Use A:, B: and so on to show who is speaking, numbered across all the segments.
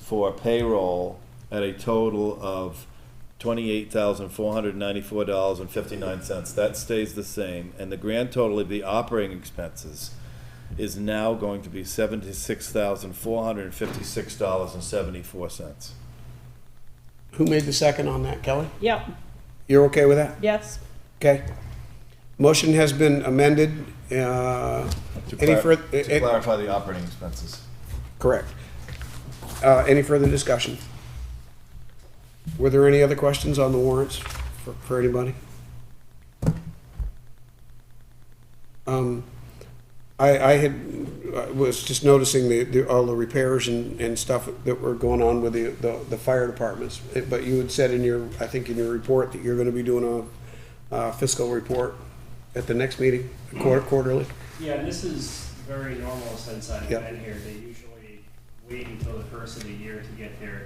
A: for payroll at a total of twenty-eight thousand, four hundred ninety-four dollars and fifty-nine cents. That stays the same, and the grand total of the operating expenses is now going to be seventy-six thousand, four hundred and fifty-six dollars and seventy-four cents.
B: Who made the second on that, Kelly?
C: Yep,
B: You're okay with that?
C: yes.
B: Okay. Motion has been amended. Uh, Any further?
A: To clarify the operating expenses.
B: Correct. Uh, Any further discussion? Were there any other questions on the warrants for, for anybody? Um, I, I had, I was just noticing the, the, all the repairs and, and stuff that were going on with the, the, the fire departments. Eh, But you had said in your, I think in your report, that you're gonna be doing a uh, fiscal report at the next meeting, quarter, quarterly?
D: Yeah, and this is very normal since I've
B: Yeah.
D: been here. They usually wait until the first of the year to get their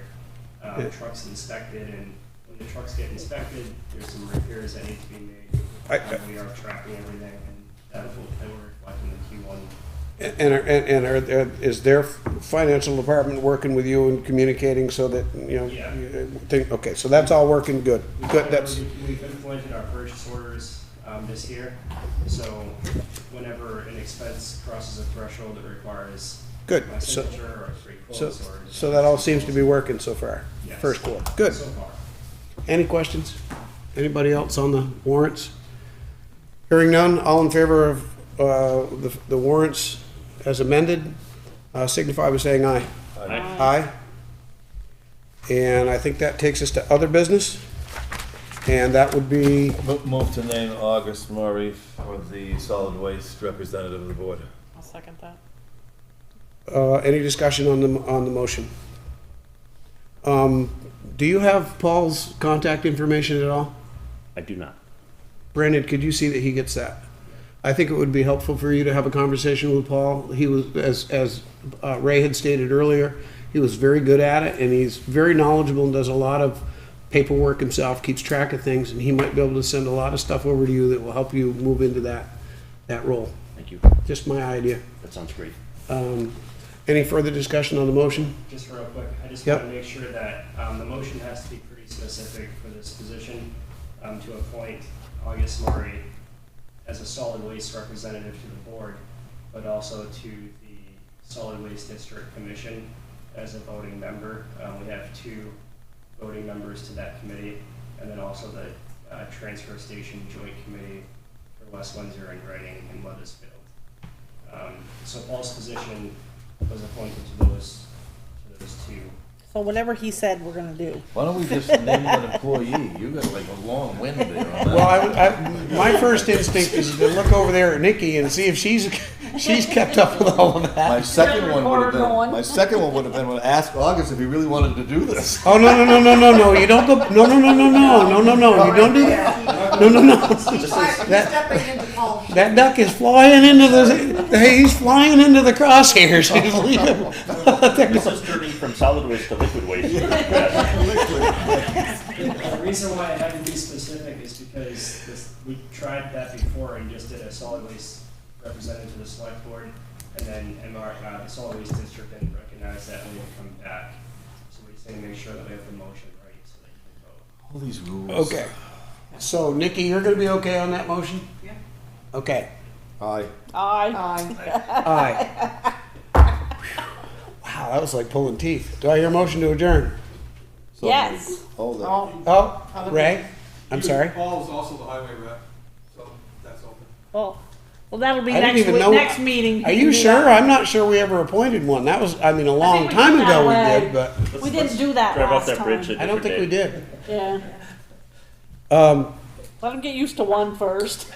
D: uh,
B: Yeah.
D: trucks inspected, and when the trucks get inspected, there's some repairs that need to be made.
B: I-
D: Uh, we are tracking everything, and that will, that will reflect in the Q1
B: And, are- and, and are- are, is their financial department working with you and communicating so that, you know?
D: Yeah.
B: you Think, okay, so that's all working good,
D: We've
B: good,
D: implemented-
B: that's,
D: We've implemented our purchase orders um, this year, so whenever an expense crosses a threshold, it requires
B: good.
D: my
B: So,
D: signature or a free
B: so,
D: close or.
B: so that all seems to be working so far,
D: Yes.
B: first quarter, good.
D: So far.
B: Any questions? Anybody else on the warrants? Hearing none, all in favor of, uh, the, the warrants as amended, uh, signify by saying aye. Aye. And I think that takes us to other business, and that would be,
A: Mo- Move to name August Murray for the solid waste representative of the board.
C: I'll second that.
B: uh, any discussion on the, on the motion? Um, do you have Paul's contact information at all?
E: I do not.
B: Brandon, could you see that he gets that? I think it would be helpful for you to have a conversation with Paul. He was, as, as uh, Ray had stated earlier, he was very good at it and he's very knowledgeable and does a lot of paperwork himself, keeps track of things, and he might be able to send a lot of stuff over to you that will help you move into that, that role.
E: Thank you.
B: Just my idea.
E: That sounds great.
B: Um, Any further discussion on the motion?
D: Just real quick, I just
B: Yep.
D: want to make sure that um, the motion has to be pretty specific for this position, um, to appoint August Murray as a solid waste representative to the board, but also to the Solid Waste District Commission as a voting member. Um, We have two voting members to that committee, and then also the uh, Transfer Station Joint Committee for West Windsor and Reading and Weathersfield. Um, So Paul's position was appointed to those to those two.
C: So whatever he said, we're gonna do.
F: Why don't we just name an employee? You got like a long wind there on
B: Well,
F: that.
B: I, would- I, my first instinct is to look over there at Nikki and see if she's, she's kept up with all of that.
A: My second one would have
C: recording one.
A: been, my second one would have been, well, ask August if he really wanted to do this.
B: Oh no no no no no no! You don't go! No no no no no no no no! You don't do that! No no no!
G: He's stepping into Paul's shoes.
B: That duck is flying into the. Hey, he's flying into the crosshairs. He's leaving.
E: This is turning from solid waste to liquid waste. Yes.
D: The reason why I had to be specific is because this, we tried that before and just did a solid waste representative to the select board, and then MR, uh, the solid waste district didn't recognize that and we come back. So we just need to make sure that we have the motion right so that you can vote.
F: All these rules.
B: Okay. So Nikki, you're gonna be okay on that motion? Yeah. Okay.
A: Aye.
C: Aye.
B: Aye. Wow, that was like pulling teeth. Do I hear a motion to adjourn?
A: So
C: Yes.
A: Hold it.
G: Oh.
B: Oh, Ray, I'm sorry.
H: Paul is also the highway rep, so that's open.
C: Well, well, that'll be
B: I didn't
C: next
B: even
C: week,
B: know-
C: next meeting.
B: Are
C: he
B: you
C: can do
B: sure?
C: that.
B: I'm not sure we ever appointed one. That was, uh, I mean, a long
C: we
B: time
C: did that
B: ago we
C: way.
B: did, but
C: We didn't do that
E: Drive off
C: last
E: that bridge.
C: time.
E: a
B: I don't
E: different
B: think
E: day.
B: we did.
C: Yeah,
B: Um,
C: let him get used to one first.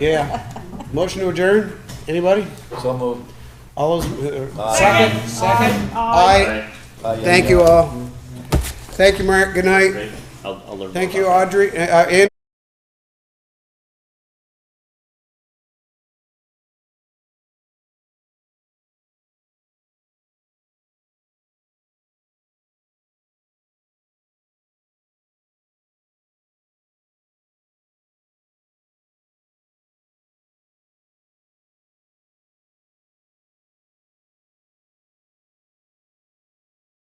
B: yeah. Motion to adjourn? Anybody?
A: So moved.
B: All those, uh,
A: Aye.
B: second, second?
C: Aye.
B: Aye.
A: Aye, yeah,
B: Thank
A: yeah.
B: you all. Thank you, Mark. Good night.
E: Great. I'll, I'll learn. more
B: Thank you,
E: about that.
B: Audrey, uh, uh, Andrew.